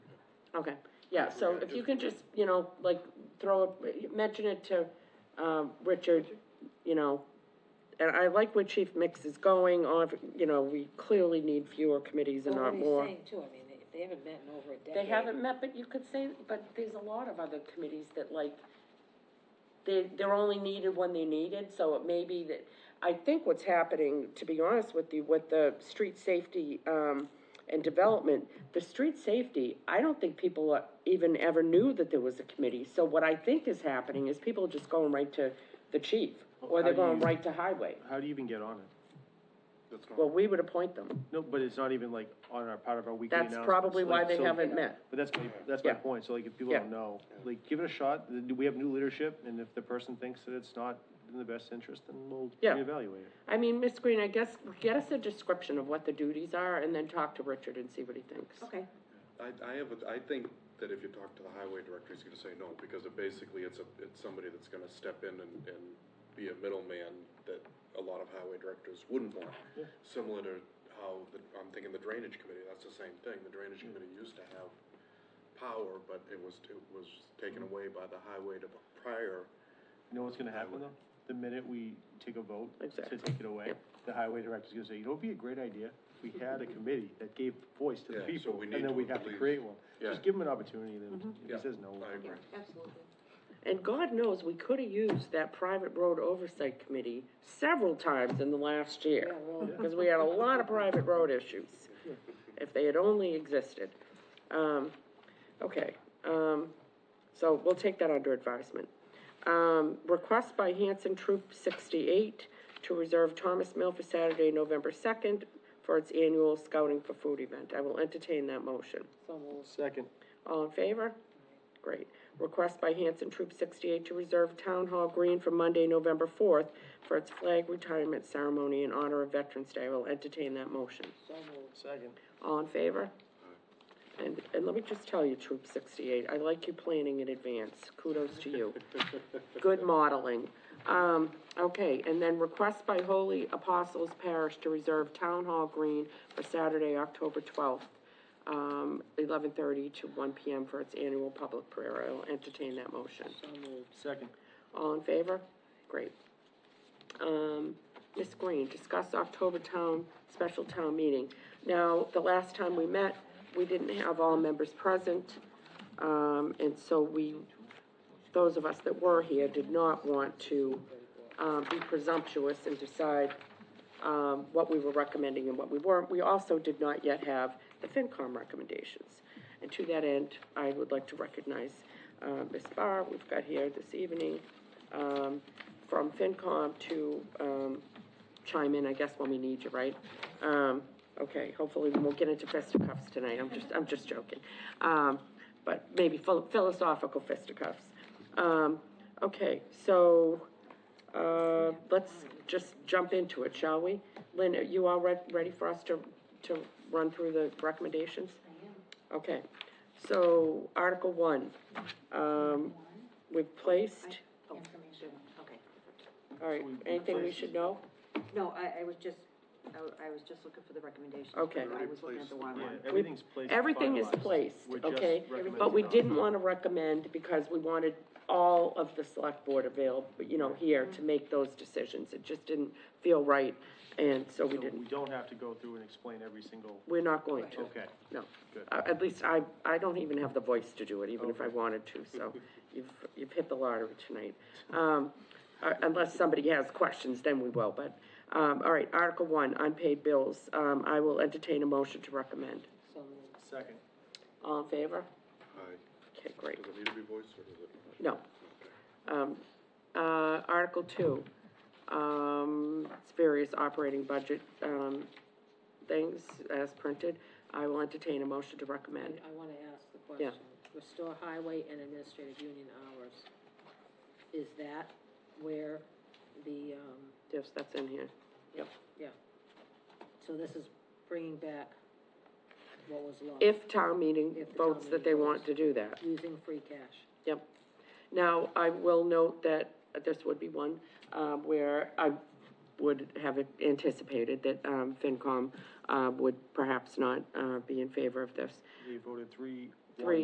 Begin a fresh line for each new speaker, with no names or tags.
Okay, yeah, so if you can just, you know, like, throw, a mention it to, um, Richard, you know, and I like where Chief Mix is going, or, you know, we clearly need fewer committees and
Well,
not
what he's
more.
saying too, I mean, they, they haven't met in over a decade.
They haven't met, but you could say, but there's a lot of other committees that like, they, they're only needed when they're needed, so it may be that, I think what's happening, to be honest with you, with the street safety, um, and development, the street safety, I don't think people are- even ever knew that there was a committee, so what I think is happening is people are just going right to the chief, or they're
How do
going
you-
right to highway,
How do you even get on it?
well, we would appoint them,
No, but it's not even like on our, part of our weekly
that's
announcements.
probably why
like,
they
so-
haven't met.
But that's my, that's my
Yeah.
point, so like, if people
Yeah.
don't know, like, give it a shot, Th- we have new leadership, and if the person thinks that it's not in the best interest, then we'll
Yeah.
reevaluate it.
I mean, Miss Green, I guess, get us a description of what the duties are, and then talk to Richard and see what he thinks.
Okay,
I, I have, a- I think that if you talk to the highway director, he's gonna say no, because it basically, it's a, it's somebody that's gonna step in and, and be a middleman that a lot of highway directors wouldn't want. Similar to how, the- I'm thinking the drainage committee, that's the same thing, the drainage committee used to have power, but it was, it was taken away by the highway to prior,
You know what's gonna happen though? The minute we take a vote to
Exactly.
take it away, the highway director's gonna say, you know, it'd be a great idea, if we had a committee that gave voice to the
Yeah, so
people,
we
and
need
then
to
we have to
leave.
create one.
Yeah.
Just give him an opportunity, then, if
Mm-hmm.
Yeah.
he says no. we'll-
I agree.
absolutely.
And God knows, we could have used that private road oversight committee several times in the last year.
Yeah, really.
Because we had a lot of private road issues, if they had only existed. Um, okay, um, so we'll take that under advisement. Um, request by Hanson Troop sixty-eight to reserve Thomas Mill for Saturday, November second, for its annual Scouting for Food event. I will entertain that motion.
So moved.
Second,
All in favor? Great. Request by Hanson Troop 68 to reserve Town Hall Green for Monday, November 4th for its flag retirement ceremony in honor of Veterans Day. I will entertain that motion.
so moved.
second.
All in favor? And, and let me just tell you, Troop 68, I like you planning in advance. Kudos to you. Good modeling. Um, okay, and then request by Holy Apostles Parish to reserve Town Hall Green for Saturday, October 12th, um, 11:30 to 1 PM for its annual public prayer. I'll entertain that motion.
Second.
All in favor? Great. Um, Ms. Green, discuss October town, special town meeting. Now, the last time we met, we didn't have all members present, um, and so we, those of us that were here did not want to, um, be presumptuous and decide, um, what we were recommending and what we weren't. We also did not yet have the FinCom recommendations. And to that end, I would like to recognize, uh, Ms. Barr, we've got here this evening, um, from FinCom to, um, chime in, I guess, when we need you, right? Um, okay, hopefully we won't get into fisticuffs tonight, I'm just, I'm just joking. Um, but maybe phil- philosophical fisticuffs. Um, okay, so, uh, let's just jump into it, shall we? Lynn, are you all re- ready for us to, to run through the recommendations? I am. Okay, so Article One, um, we've placed,
Information. Okay.
all right,
So we- we
anything we
placed-
should know?
No, I, I was just, I, w- I was just looking for the recommendations.
Okay.
I was looking at the wrong
Yeah,
one.
everything's placed.
Everything is
finalized.
placed,
We're just
okay?
recommending
But we
not.
didn't want to recommend because we wanted all of the select board available, you know, here to make those decisions. It just didn't feel right, and so we
So we
didn't,
don't have to go through and explain every single,
we're not going to.
okay.
No.
Good.
Uh, At least I, I don't even have the voice to do it, even if I wanted to, so you've, you've hit the lottery tonight. Um, uh, unless somebody has questions, then we will, but, um, all right, Article One, unpaid bills. Um, I will entertain a motion to recommend.
So moved.
Second,
All in favor?
Aye.
Okay, great.
Does it need to be voiced, or does it?
No. Um, uh, Article two, um, it's various operating budget, um, things as printed. I will entertain a motion to recommend.
I wanna ask the
Yeah.
question, restore highway and administrative union hours. Is that where the, um,
Yes, that's in here.
yeah, so this is bringing back what was lost?
If town meeting
If the town
votes that they
meeting
want
votes.
to do that.
Using free cash.
Yep. Now, I will note that this would be one, um, where I would have anticipated that, um, FinCom, uh, would perhaps not, uh, be in favor of this.
we voted three. one.
Three